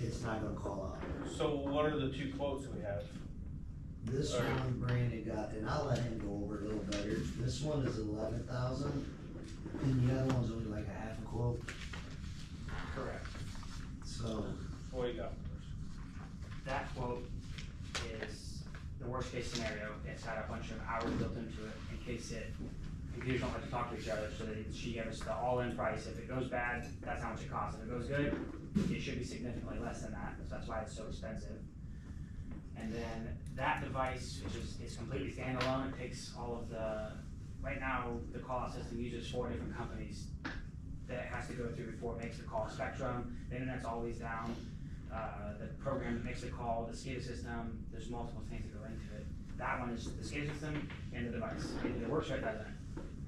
it's not gonna call out. So what are the two quotes we have? This Alright. one Brandon got, and I'll let him go over it a little better, this one is eleven thousand, and the other one's only like a half a quote, Correct. so. What do you got first? That quote is the worst case scenario. It's had a bunch of hours built into it in case it, computers don't like to talk to each other, so that it- she gave us the all-in price. If it goes bad, that's how much it costs. If it goes good, it should be significantly less than that, so that's why it's so expensive. And then that device, which is, is completely standalone, it takes all of the, right now, the call system uses four different companies that it has to go through before it makes the call. Spectrum, the internet's always down, uh, the program that makes the call, the SCADA system, there's multiple things that go into it. That one is the SCADA system and the device, either it works or it doesn't,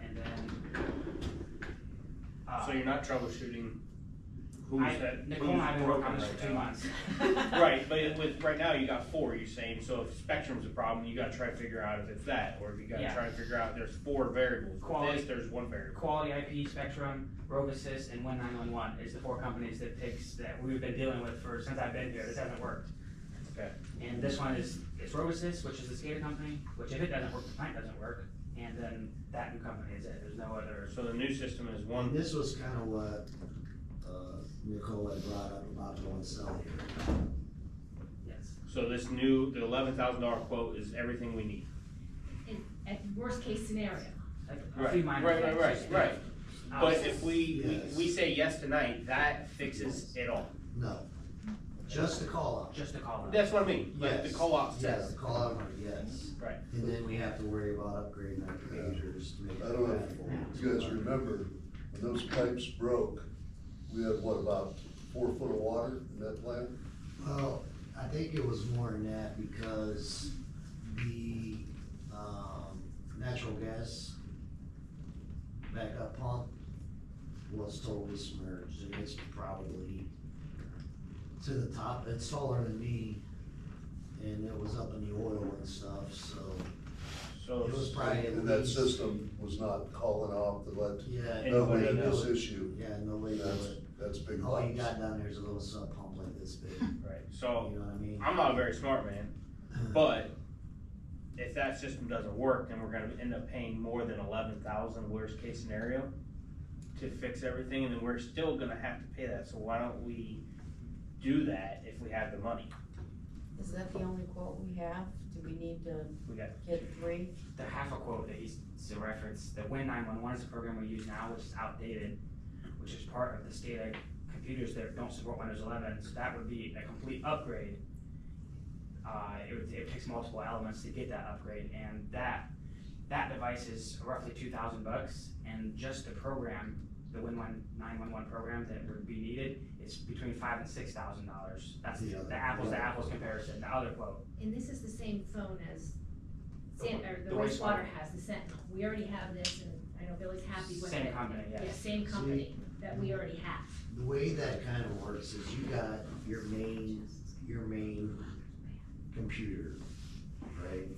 and then. uh, So you're not troubleshooting I- who's that? Nicole and I have been who's working on this broken for right two now? months. Right, but with, right now you got four, you're saying, so if Spectrum's a problem, you gotta try to figure out if it's that, or if you gotta Yeah. try to figure out there's four variables. With Quality. this, there's one variable. Quality IP, Spectrum, Rovisys, and one nine one one is the four companies that takes, that we've been dealing with for, since I've been here, this hasn't worked. Okay. And this one is, it's Rovisys, which is the SCADA company, which if it doesn't work, the plant doesn't work, and then that new company is it, there's no other. So the new system is And one, this was kinda what, uh, Nicole had brought up about the one cell here. Yes. so this new, the eleven thousand dollar quote is everything we need. at worst case scenario. Like, A few minor Right, right, things. right, right. Uh, But if we, Yes. we, we say yes tonight, that fixes it all. No, just the call out. Just a call out. That's what I mean, like the Yes. co-op Yes, says. the call out, money, yes. Right. And then we have to worry about upgrading our computers to make. I don't know it if you guys remember, when those pipes broke, we had what, about four foot of water in that plant? Well, I think it was more than that because the, um, natural gas backup pump was totally submerged and it's probably to the top, it's taller than me. And it was up in the oil and stuff, so So, it was probably at And that least- system was not calling off to let Yeah. nobody Anybody had knew this it. issue. Yeah, nobody knew That's, it. that's big All you loss. got down there is a little sub pump like this big, you right, know so what I mean? I'm not a very smart man, but if that system doesn't work, then we're gonna end up paying more than eleven thousand worst case scenario to fix everything, and then we're still gonna have to pay that, so why don't we do that if we have the money? Is that the only quote we have? Do we need to We got, get three? The half a quote that he's, to reference, the Win nine one one is a program we use now, which is outdated, which is part of the state of computers that don't support Windows eleven, so that would be a complete upgrade. Uh, it would, it takes multiple elements to get that upgrade, and that, that device is roughly two thousand bucks, and just the program, the Win one, nine one one program that would be needed, is between five and six thousand dollars. That's the, Yeah. the apples to apples comparison, the other quote. And this is the same phone as San, or the The wastewater. wastewater has, the Sentinel. We already have this and I know Billy's happy with it. Same company, yes. Yeah, same See? company that we already have. The way that kind of works is you got your main, your main computer, right?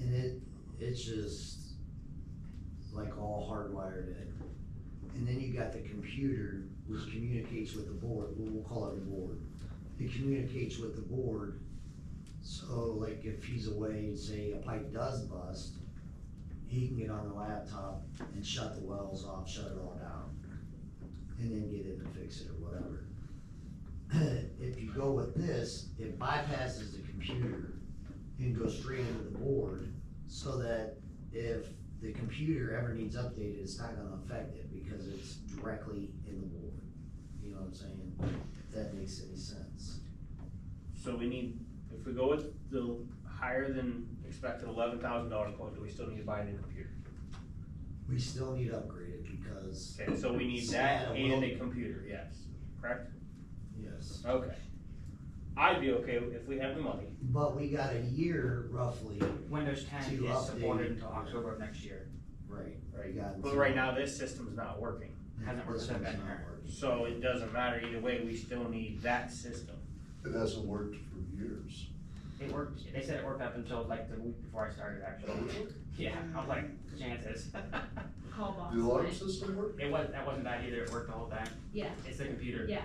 And it, it's just like all hardwired in. And then you got the computer which communicates with the board, well, we'll call it a board. It communicates with the board. So like if he's away, say a pipe does bust, he can get on the laptop and shut the wells off, shut it all down and then get in and fix it or whatever. If you go with this, it bypasses the computer and goes straight into the board so that if the computer ever needs updated, it's not gonna affect it because it's directly in the board. You know what I'm saying? If that makes any sense. so we need, if we go with the higher than expected eleven thousand dollar quote, do we still need to buy a new computer? We still need upgraded because, Okay, so we need that and a computer, yes, correct? yes. Okay. I'd be okay if we have the money, But we got a year roughly, Windows ten To is supported update. until October of next year, right? right? We got- But right now, this system's not working. Hasn't worked This since one's I've been not here. working. So it doesn't matter either way, we still need that system. It hasn't worked for years. it worked, they said it worked up until like the week before I started actually. Yeah, I was like, chances. Call box. The alarm right? system work? It was, that wasn't bad either, it worked the whole time, Yeah, it's the computer. yeah.